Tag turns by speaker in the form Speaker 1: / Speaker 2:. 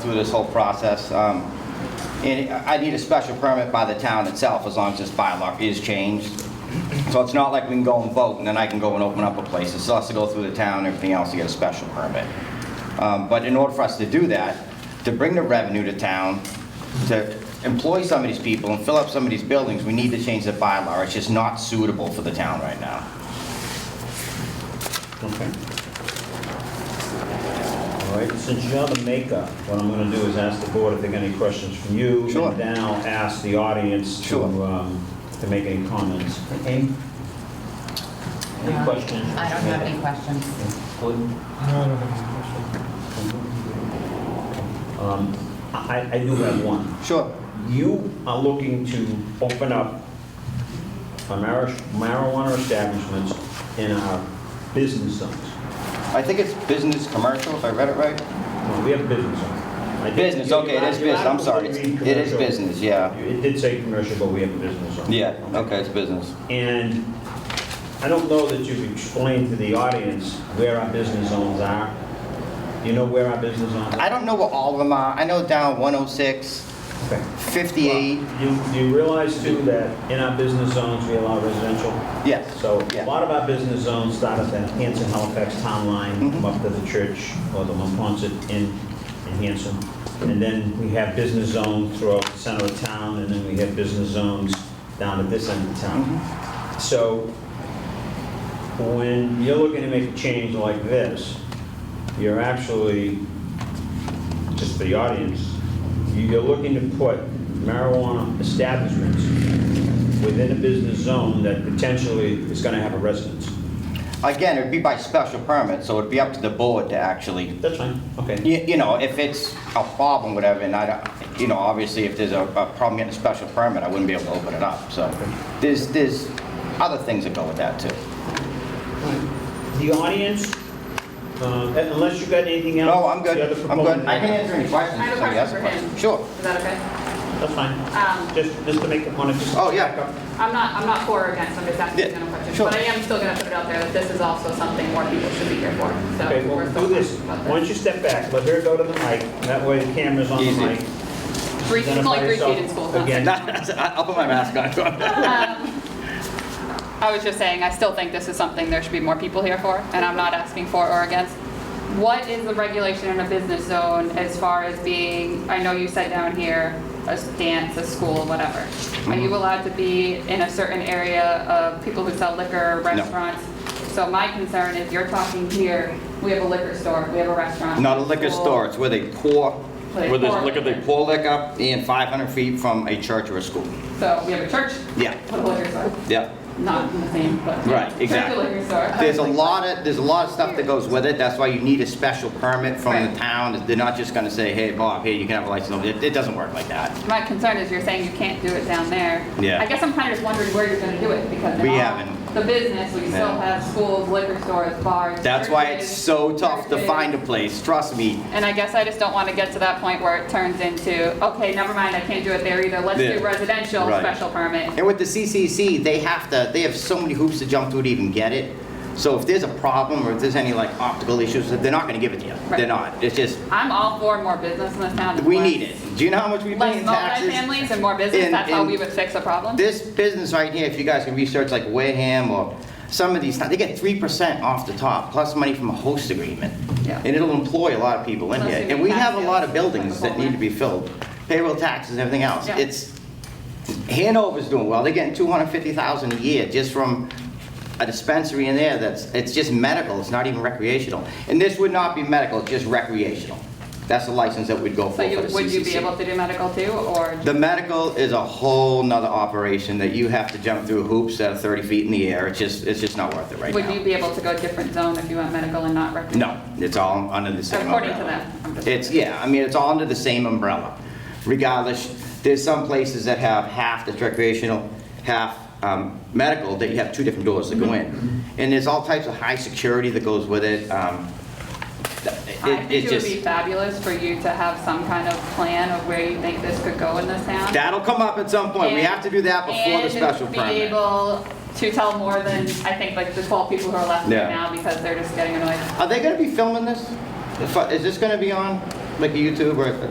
Speaker 1: through this whole process. um, And I need a special permit by the town itself, as long as this bylaw is changed. So it's not like we can go and vote, and then I can go and open up a place. It still has to go through the town and everything else to get a special permit. Um, But in order for us to do that, to bring the revenue to town, to employ some of these people and fill up some of these buildings, we need to change the bylaw. It's just not suitable for the town right now.
Speaker 2: Okay. All right, since you're the maker, what I'm gonna do is ask the board if they got any questions from you.
Speaker 1: Sure.
Speaker 2: And then I'll ask the audience to,
Speaker 1: Sure.
Speaker 2: um, to make any comments. Okay? Any
Speaker 3: Uh,
Speaker 4: No.
Speaker 2: questions?
Speaker 4: I don't have any questions.
Speaker 2: Gordon?
Speaker 3: No, I don't have any
Speaker 2: Um, I, I do have one.
Speaker 1: Sure.
Speaker 2: You are looking to open up a mar- marijuana establishments in our business zones.
Speaker 1: I think it's business commercial, if I read it right.
Speaker 2: No, We have business zones. I think-
Speaker 1: Business, okay, it is
Speaker 2: You're
Speaker 1: business,
Speaker 2: not-
Speaker 1: I'm
Speaker 2: you're not
Speaker 1: sorry.
Speaker 2: supposed to
Speaker 1: It's-
Speaker 2: read
Speaker 1: It is
Speaker 2: commercial.
Speaker 1: business, yeah.
Speaker 2: It did say commercial, but we have a business zone.
Speaker 1: Yeah, okay, it's business.
Speaker 2: And I don't know that you've explained to the audience where our business zones are. You know where our business zones are?
Speaker 1: I don't know what all of them are. I know down 106,
Speaker 2: Okay.
Speaker 1: 58,
Speaker 2: You, you realize too that in our business zones, we allow residential?
Speaker 1: yes.
Speaker 2: So
Speaker 1: Yeah.
Speaker 2: a lot of our business zones start at the Hanson Halifax town
Speaker 1: Mm-hmm.
Speaker 2: line, come up to the church or the Monpont in, in Hanson. And then we have business zones throughout the center of town, and then we have business zones down at this end of
Speaker 1: Mm-hmm.
Speaker 2: town. So when you're looking to make a change like this, you're actually, just for the audience, you're looking to put marijuana establishments within a business zone that potentially is going to have a residence.
Speaker 1: Again, it'd be by special permit, so it'd be up to the board to actually,
Speaker 2: That's fine, okay.
Speaker 1: you, you know, if it's a problem, whatever, and I don't, you know, obviously if there's a, a problem getting a special permit, I wouldn't be able to open it up, so. There's, there's other things that go with that too.
Speaker 2: The audience, uh, unless you've got anything else?
Speaker 1: No, Oh, I'm good,
Speaker 2: the other
Speaker 1: I'm good.
Speaker 2: proponent-
Speaker 1: I can answer any questions
Speaker 4: I have
Speaker 1: if
Speaker 4: a
Speaker 1: somebody has a
Speaker 4: question for
Speaker 1: question.
Speaker 4: him.
Speaker 1: Sure.
Speaker 4: Is that okay?
Speaker 2: That's fine.
Speaker 4: Um,
Speaker 2: Just, just to make the point, just...
Speaker 1: Oh, yeah.
Speaker 4: I'm not, I'm not for or against, I'm just asking
Speaker 1: Yeah,
Speaker 4: general questions.
Speaker 1: sure.
Speaker 4: But I am still gonna put it out there that this is also something more people should be here for, so.
Speaker 2: Okay, well,
Speaker 4: we're still
Speaker 2: do this.
Speaker 4: talking about
Speaker 2: Why don't you step back, let her go to the mic, that way the camera's on the
Speaker 1: Easy.
Speaker 2: mic.
Speaker 4: Three- it's only three feet in school, huh?
Speaker 2: Again,
Speaker 1: I'll put my mask on.
Speaker 4: I was just saying, I still think this is something there should be more people here for, and I'm not asking for or against. What is the regulation in a business zone as far as being, I know you said down here, a dance, a school, whatever. Are
Speaker 1: Mm-hmm.
Speaker 4: you allowed to be in a certain area of people who sell liquor, restaurants? So my concern is you're talking here, we have a liquor store, we have a restaurant.
Speaker 1: Not a liquor
Speaker 4: school.
Speaker 1: store, it's where they pour,
Speaker 4: Where they
Speaker 1: where there's
Speaker 4: pour
Speaker 1: liquor, they
Speaker 4: liquor.
Speaker 1: pour liquor and 500 feet from a church or a school.
Speaker 4: So we have a church,
Speaker 1: Yeah,
Speaker 4: put a liquor store,
Speaker 1: yeah.
Speaker 4: not in the same, but.
Speaker 1: Right,
Speaker 4: Church, a
Speaker 1: exactly.
Speaker 4: liquor store. I
Speaker 1: There's a
Speaker 4: was like,
Speaker 1: lot of, there's a lot of stuff that goes with it, that's why you need a special permit from the
Speaker 4: Right.
Speaker 1: town. They're not just gonna say, hey, Bob, here, you can have a license. It, it doesn't work like that.
Speaker 4: My concern is you're saying you can't do it down there.
Speaker 1: Yeah.
Speaker 4: I guess I'm kind of just wondering where you're going to do it because in
Speaker 1: We
Speaker 4: all
Speaker 1: haven't.
Speaker 4: The business, we still
Speaker 1: Yeah.
Speaker 4: have schools, liquor stores, bars.
Speaker 1: That's why it's
Speaker 4: churches,
Speaker 1: so tough to
Speaker 4: churches.
Speaker 1: find a place, trust me.
Speaker 4: And I guess I just don't want to get to that point where it turns into, okay, never mind, I can't do it there either. Let's
Speaker 1: Yeah.
Speaker 4: do residential
Speaker 1: Right.
Speaker 4: special permit.
Speaker 1: And with the CCC, they have to, they have so many hoops to jump through to even get it. So if there's a problem or if there's any like optical issues, they're not gonna give it to you. They're
Speaker 4: Right.
Speaker 1: not. It's just,
Speaker 4: I'm all for more business in this town.
Speaker 1: we
Speaker 4: Less-
Speaker 1: need it. Do you know how much we pay
Speaker 4: Less
Speaker 1: in taxes?
Speaker 4: multifamilies and more business,
Speaker 1: And-
Speaker 4: that's how
Speaker 1: and
Speaker 4: we would fix a problem.
Speaker 1: This business right here, if you guys can research like Wareham or some of these, they get 3% off the top, plus money from a host agreement.
Speaker 4: Yeah.
Speaker 1: And it'll employ a lot of people in
Speaker 4: Plus
Speaker 1: here.
Speaker 4: you
Speaker 1: And
Speaker 4: get
Speaker 1: we have a
Speaker 4: taxes,
Speaker 1: lot of buildings
Speaker 4: like a
Speaker 1: that
Speaker 4: whole
Speaker 1: need to be filled, payroll taxes and everything else.
Speaker 4: Yeah.
Speaker 1: It's, Hanover's doing well, they're getting 250,000 a year just from a dispensary in there that's, it's just medical, it's not even recreational. And this would not be medical, it's just recreational. That's the license that we'd go for
Speaker 4: So
Speaker 1: for the
Speaker 4: you,
Speaker 1: CCC.
Speaker 4: would you be able to do medical too, or?
Speaker 1: The medical is a whole nother operation that you have to jump through hoops that are 30 feet in the air. It's just, it's just not worth it right
Speaker 4: Would you
Speaker 1: now.
Speaker 4: be able to go a different zone if you went medical and not recreational?
Speaker 1: No, it's all under the same umbrella.
Speaker 4: According to them, I'm just-
Speaker 1: It's, yeah, I mean, it's all under the same umbrella. Regardless, there's some places that have half that's recreational, half um, medical, that you have two different doors that
Speaker 4: Mm-hmm.
Speaker 1: go in. And there's all types of high security that goes with it. um, th-
Speaker 4: I
Speaker 1: it-
Speaker 4: think it would
Speaker 1: just-
Speaker 4: be fabulous for you to have some kind of plan of where you think this could go in this town.
Speaker 1: That'll come up at some point. We have to do that before the special permit.
Speaker 4: And be able to tell more than, I think, like the 12 people who are left
Speaker 1: Yeah.
Speaker 4: right now because they're just getting annoyed.
Speaker 1: Are they gonna be filming this? If I- Is this gonna be on, like, YouTube or a